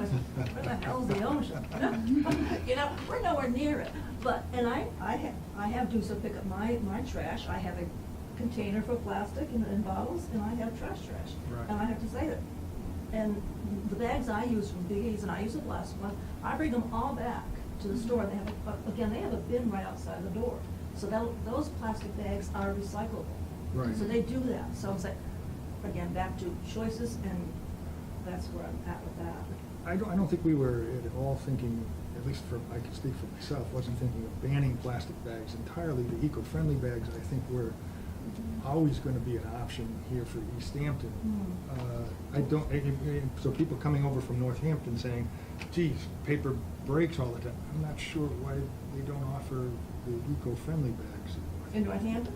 is, where the hell's the ocean? You know, we're nowhere near it, but, and I, I have, I have do some pickup, my, my trash, I have a container for plastic and, and bottles, and I have trash trash. Right. And I have to say that, and the bags I use from Big E's, and I use a plastic one, I bring them all back to the store, they have, a- again, they have a bin right outside the door, so that, those plastic bags are recyclable. Right. So they do that, so it's like, again, back to choices, and that's where I'm at with that. I don't, I don't think we were at all thinking, at least for, I can speak for myself, wasn't thinking of banning plastic bags entirely. The eco-friendly bags, I think, were always gonna be an option here for East Hampton. Hmm. Uh, I don't, I- I- so people coming over from Northampton saying, geez, paper breaks all the time. I'm not sure why they don't offer the eco-friendly bags. In Northampton?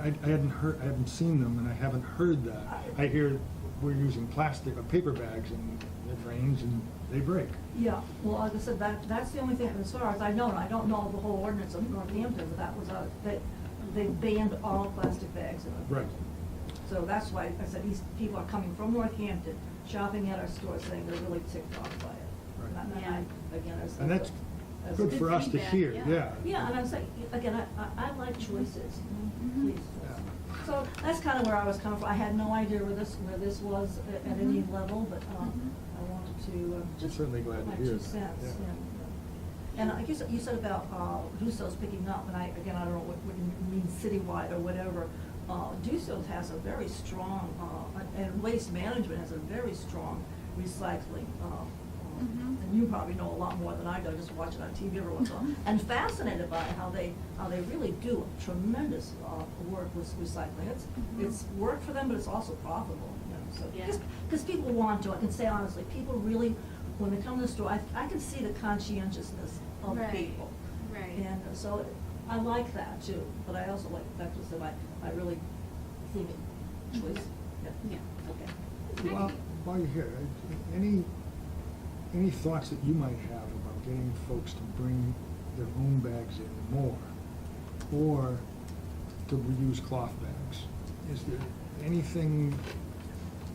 I, I hadn't heard, I haven't seen them and I haven't heard that. I hear we're using plastic, or paper bags and it rains and they break. Yeah, well, like I said, that, that's the only thing, as far as I know, and I don't know the whole ordinance of Northampton, but that was, uh, that, they banned all plastic bags in Northampton. So that's why, I said, these people are coming from Northampton, shopping at our stores, saying they're really ticked off by it. Right. And I, again, I said. And that's that's- good for us to feedback, hear, yeah. yeah. Yeah, and I'm saying, again, I, I, I like choices, Mhm. please. So that's kind of where I was coming from. I had no idea where this, where this was at- at any Mhm. level, but, um, I wanted to, uh, just. certainly glad to my hear two that, cents, yeah. yeah. And I guess you said about, uh, Dusos picking up, and I, again, I don't know what, what you mean citywide or whatever. Uh, Dusos has a very strong, uh, and Waste Management has a very strong recycling, uh, um, Mhm. and you probably know a lot more than I do, just watch it on TV every once in a while, and fascinated by how they, how they really do tremendous uh, work with recycling. It's, Mhm. it's work for them, but it's also profitable, you know, so. Yeah. Because people want to, I can say honestly, people really, when they come to the store, I, I can see the conscientiousness of Right, people. right. And so I like that too, but I also like the fact that I, I really think it choice. Mm-hmm. Yeah. Okay. While, while you're here, I- any, any thoughts that you might have about getting folks to bring their own bags in more? Or to reuse cloth bags? Is there anything,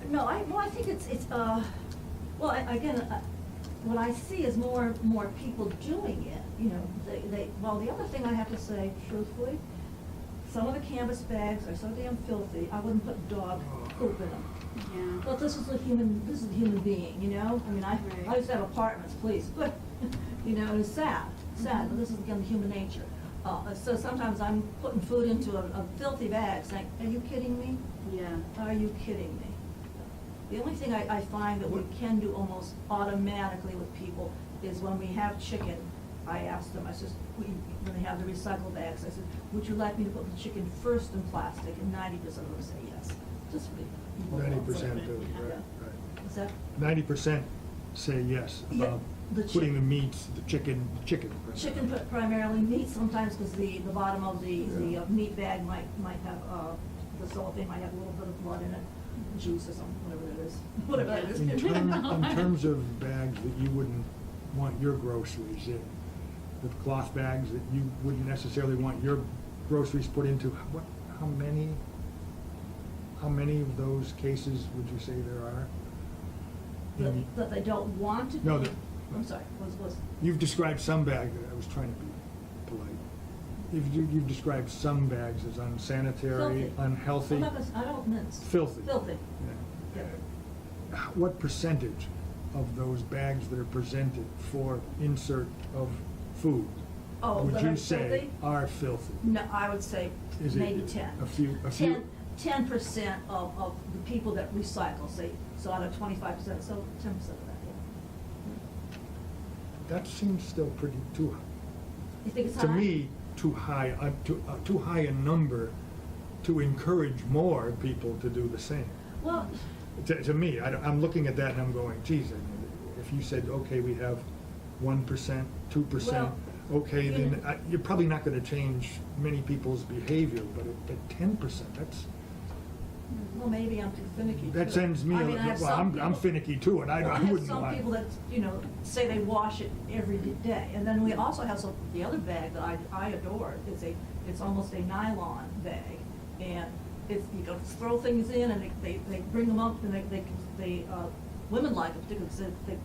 No, I, well, I think it's, it's, uh, well, I- again, uh, what I see is more, more people doing it, you know, they, they, well, the other thing I have to say truthfully, some of the canvas bags are so damn filthy, I wouldn't put dog poop in them. Yeah. But this is a human, this is a human being, you know, I mean, I, I Right. used to have apartments, please, but, you know, it's sad, sad, but this is again human nature. Uh, so sometimes I'm putting food into a a filthy bag, saying, are you kidding me? Yeah. Are you kidding me? The only thing I, I find that we can do almost automatically with people is when we have chicken, I ask them, I says, we, when they have the recycle bags, I said, would you like me to put the chicken first in plastic? And ninety percent of them say yes, just for the. ninety percent of do, it, right, Yeah. right? Is that, Ninety percent say yes Yeah, about the chick- putting the meats, the chicken, chicken. chicken pri- primarily meat sometimes, because the, the bottom of the, the uh, meat bag might, might have, uh, the cellophane might have a little bit of blood in it, juice or something, whatever it is, whatever it is. In term, in terms of bags that you wouldn't want your groceries in, the cloth bags that you wouldn't necessarily want your groceries put into, what, how many? How many of those cases would you say there are? that, In- that they don't want to. No, do- that- I'm sorry, was, was, You've described some bag, I was trying to be polite. You've, you've described some bags as unsanitary, Filthy. unhealthy. I'm not gonna, I don't mince. Filthy. Filthy. Yeah. Uh, What percentage of those bags that are presented for insert of food? Oh, that are Would you say filthy? are filthy? No, I would say Is it maybe ten. a few- a few- Ten, ten percent of, of the people that recycle, say, so out of twenty-five percent, so ten percent of that, yeah. That seems still pretty too, You think it's high? to me, too high, uh, too, uh, too high a number to encourage more people to do the same. Well, To, to me, I, am looking at that and I'm going, geez, I mean, if you said, okay, we have one percent, two percent, Well, okay, you then know- I, you're probably not gonna change many people's behavior, but, it- but ten percent, that's, well, maybe I'm too finicky too. that sends me, I mean, I have well, some I'm, I'm people- finicky too, and I, Well, I have wouldn't some want. people that, you know, say they wash it every day, and then we also have some, the other bag that I, I adore, it's a, it's almost a nylon bag, and it's, you go throw things in, and they, they, they bring them up, and they, they, they, uh, women like it particularly, because they, they